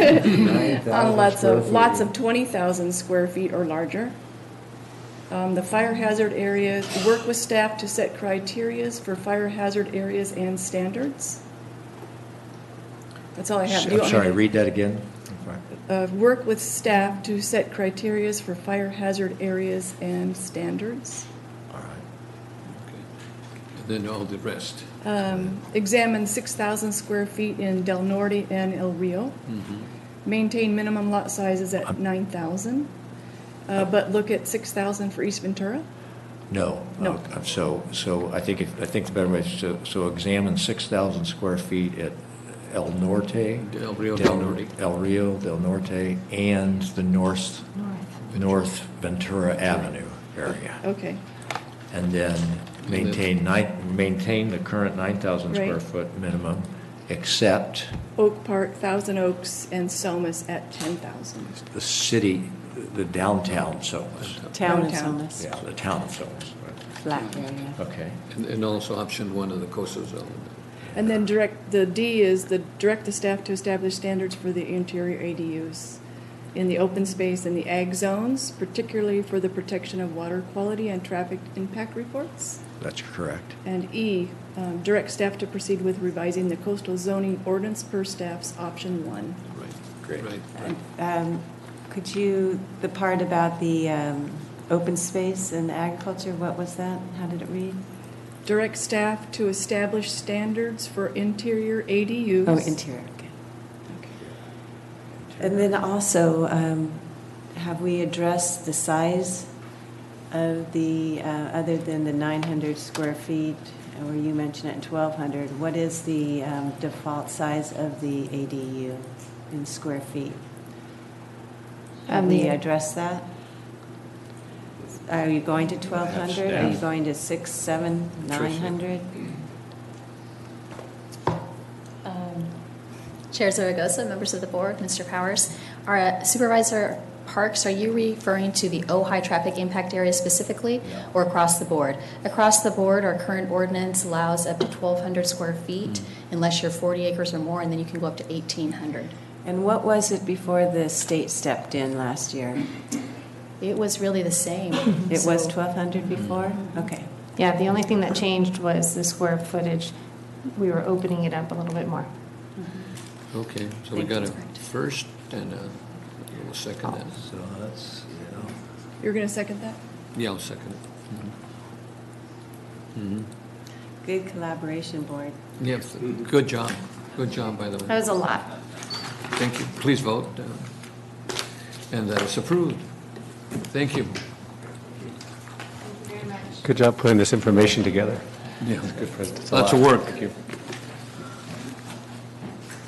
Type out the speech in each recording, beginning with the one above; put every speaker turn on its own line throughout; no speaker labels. on
9,000
lots
square
of,
feet.
lots of 20,000 square feet or larger. Um, The fire hazard areas, work with staff to set criterias for fire hazard areas and standards. That's all I have. Do you
I'm
want me
sorry,
to-
read that again.
uh, Work with staff to set criterias for fire hazard areas and standards.
All right.
And then all the rest.
Um, Examine 6,000 square feet in Del Norte and El Rio. Maintain minimum lot sizes at 9,000, uh, but look at 6,000 for East Ventura.
No.
No.
Uh, So, so I think, if- I think the better way is to, so examine 6,000 square feet at El Norte.
Del Rio
Del-
Del Norte.
El Rio, Del Norte, and the north, North Ventura Avenue area.
Okay,
And then maintain nine, maintain the current 9,000 square
Right.
foot minimum, except
Oak Park, Thousand Oaks, and Somas at 10,000.
the city, the downtown zones.
Town is
Downtown.
on this
Yeah, the town zones.
flat area.
Okay.
And, and also option one of the coastal zone.
And then direct, the D is the, direct the staff to establish standards for the interior ADUs in the open space and the ag zones, particularly for the protection of water quality and traffic impact reports.
That's correct.
And E, um, direct staff to proceed with revising the coastal zoning ordinance per staff's option one.
Right.
Great.
Right.
Um, Could you, the part about the um, open space and agriculture, what was that? How did it read?
Direct staff to establish standards for interior ADUs.
Oh, interior, okay. And then also, um, have we addressed the size of the, uh, other than the 900 square feet, or you mentioned it, 1,200, what is the um, default size of the ADU in square feet? Have
Um,
we
the-
addressed that? Are you going to 1,200? Are you
staff.
going to 6, 7,
Tricia.
900?
Um, Chair Zaragoza, members of the board, Mr. Powers, our uh, Supervisor Parks, are you referring to the Ojai traffic impact area specifically or across the board? Across the board, our current ordinance allows up to 1,200 square feet unless you're 40 acres or more, and then you can go up to 1,800.
And what was it before the state stepped in last year?
It was really the same.
It
So-
was 1,200 before? Okay.
Yeah, the only thing that changed was the square footage. We were opening it up a little bit more.
Okay, so we
Thank
got a
you.
first and a, we'll second that.
So that's, you know.
You're going to second that?
Yeah, I'll second it. Mhm.
Good collaboration, board.
Mhm. Yes, good job, good job, by the
That
way.
was a lot.
Thank you, please vote. uh, And that is approved. Thank you.
Good job putting this information together.
Yeah.
Good presentation.
Lots of work.
Thank you.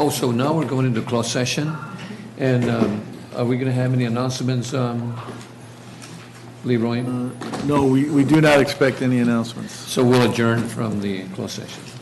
Oh, so now we're going into closed session, and um, are we going to have any announcements, um, Leroy?
No, we we do not expect any announcements.
So we'll adjourn from the closed session.